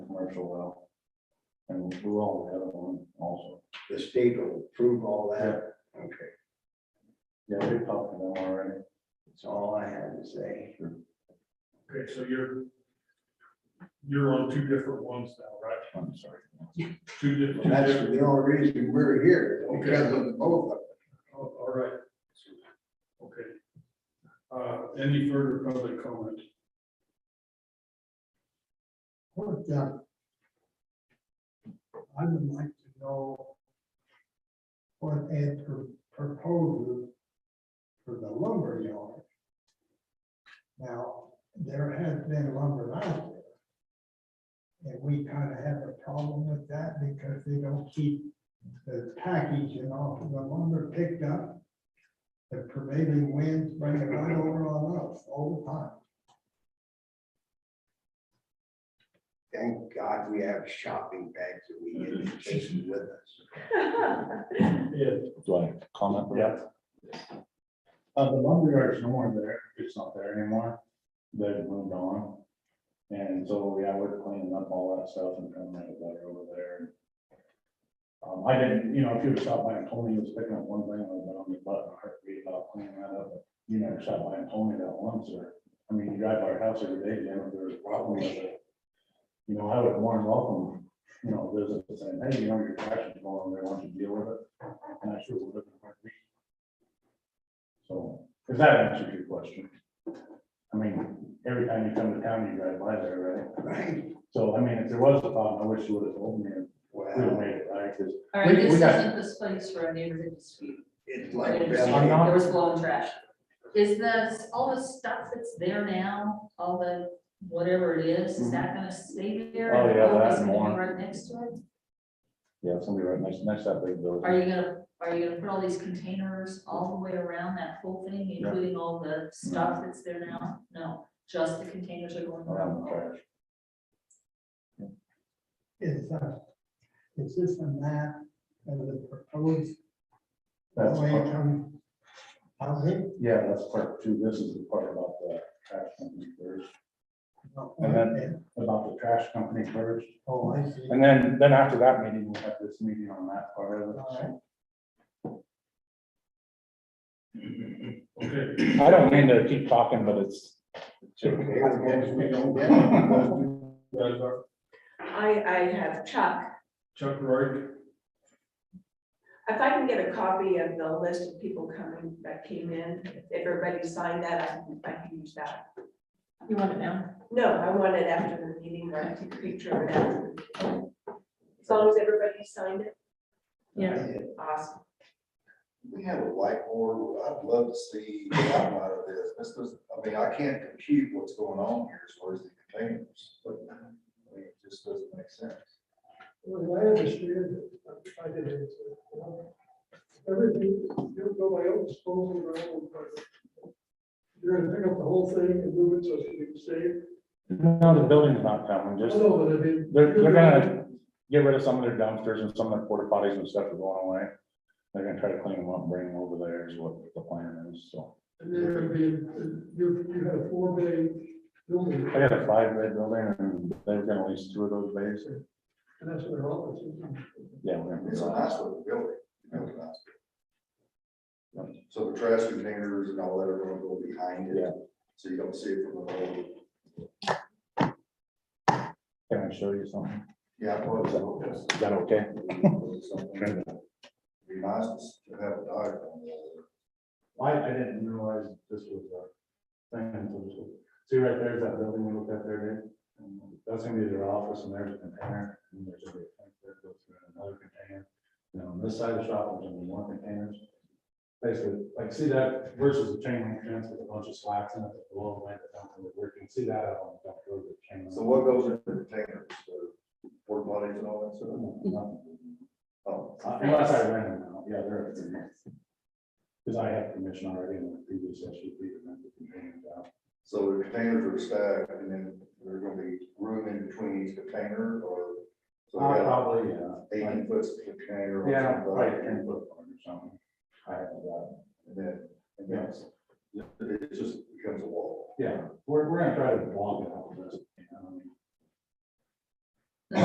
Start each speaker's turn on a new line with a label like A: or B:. A: commercial well. And we'll do all the other one also.
B: The state will approve all that? Okay,
A: Yeah, we talked to them already.
B: that's all I had to say.
C: Okay, so you're, you're on two different ones now, right?
A: I'm sorry.
C: Two different.
B: That's the only reason we're here, because of both of
C: Oh, All right. Okay. Uh, any further public comment?
D: What, uh, I would like to know what Ed pro- proposed for the lumber yard. Now, there has been lumber out there. And we kind of have a problem with that because they don't keep the packaging off of the lumber picked up. The prevailing winds bring it right over on us all the time.
B: Thank God we have shopping bags that we can take with us.
C: Ed,
A: Do I comment? Yeah. Uh, the lumberyard is no more there, it's not there anymore, they've moved on. And so, yeah, we're cleaning up all that stuff and trying to make it better over there. Um, I didn't, you know, if you would've stopped by and told me you was picking up one thing, I would've been on your butt, and heartbeat about cleaning that up, but you never stopped by and told me that once, or, I mean, you drive by our house every day, you know, if there's a problem with it. You know, I would warn welcome, you know, visitors saying, hey, you know, your trash is going, there. want you to deal with it. And I sure would have. So, does that answer your question? I mean, every time you come to town, you drive by there, right?
B: Right,
A: So, I mean, if there was a problem, I wish you would have told me, and we would have
B: well,
A: made it right, because.
E: All right,
A: We- we
E: this
A: got-
E: isn't this place for a neighborhood dispute.
B: it's
E: I
B: like.
E: didn't
A: I'm
E: understand
A: not-
B: that.
E: that There was blowing trash. Is this, all the stuff that's there now, all the whatever it is, is that gonna stay there?
A: Oh, yeah,
E: All
A: that
E: this
A: and
E: gonna be
A: more.
E: Right next to it?
A: Yeah, somebody right next, next to that big
E: Are
A: building.
E: you gonna, are you gonna put all these containers all the way around that whole thing,
A: Yeah.
E: including all the stuff that's there now? No, just the containers are going
A: Around the
E: around.
A: trash.
D: is, uh, is this a map of the proposed
A: That's,
D: way
A: part-
D: from housing?
A: yeah, that's part two, this is the part about the trash company first, And
D: Okay,
A: about the trash company first.
D: Oh, I see.
A: And then, then after that meeting, we'll have this meeting on that part of it.
D: All right.
C: okay.
A: I don't mean to keep talking, but it's.
B: It's okay, as long as we don't get it.
C: You guys are-
F: I, I have Chuck.
C: Chuck Wright,
F: If I can get a copy of the list of people coming, that came in, if everybody signed that, I can, I can use that.
E: You want it now?
F: No, I want it after the meeting, or I can picture it after. the meeting. As long as everybody signed it,
E: Yeah.
F: awesome.
B: We have a whiteboard, I'd love to see the outline of this, this was, I mean, I can't compute what's going on here as far as the containers, but I mean, it just doesn't make sense.
G: Well, I understand, I did it. Everything, you go by own disposal, and my own, but you're gonna pick up the whole thing and move it so it's gonna be safe.
A: No, the building's not coming,
G: I
A: just.
G: know, but I mean.
A: They're, they're gonna get rid of some of their dumpsters and some of their porta potties and stuff are going away. They're gonna try to clean them up, and bring them over there is what the plan is, so.
G: And they're gonna be, you, you had a four bay building,
A: I got a five bed building and they're gonna lease two of those bays.
G: and that's where all this is.
A: Yeah. we're gonna do
H: It's a
A: that.
H: nice little building, really nice. So the trash containers and all that are gonna go behind it,
A: Yeah.
H: so you don't see it from the road.
A: Can I show you something?
H: Yeah, well, it's-
A: Is that okay?
H: something that Be nice to s- to have a diagram.
A: I, I didn't realize this was a thing. until this was- See right there's that building we looked at there, Dave? that's gonna be their office and there's a container. And there's gonna be a tank that goes through another container. And on this side of the shop, there's only one container. Basically, like see that versus a chain link fence with a bunch of slats in it that blow away the dump and work. You can see that out on the dump road that chain. link.
H: So what goes in the containers, the porta potties and all that stuff? Oh,
A: Uh, Unless I ran them out, yeah, they're. Because I have permission already in the previous S U P to rent the containers out.
H: so the containers are stacked and then there's gonna be room in between each container or? so we
A: Uh,
H: got
A: Probably, yeah. Like,
H: Eighteen foot container. or
A: Yeah,
H: something
A: right,
H: like that.
A: ten foot apart or something. I have that.
H: And then, and then it's- it just becomes a wall.
A: Yeah, we're, we're gonna try to block it out, but, you know, I mean,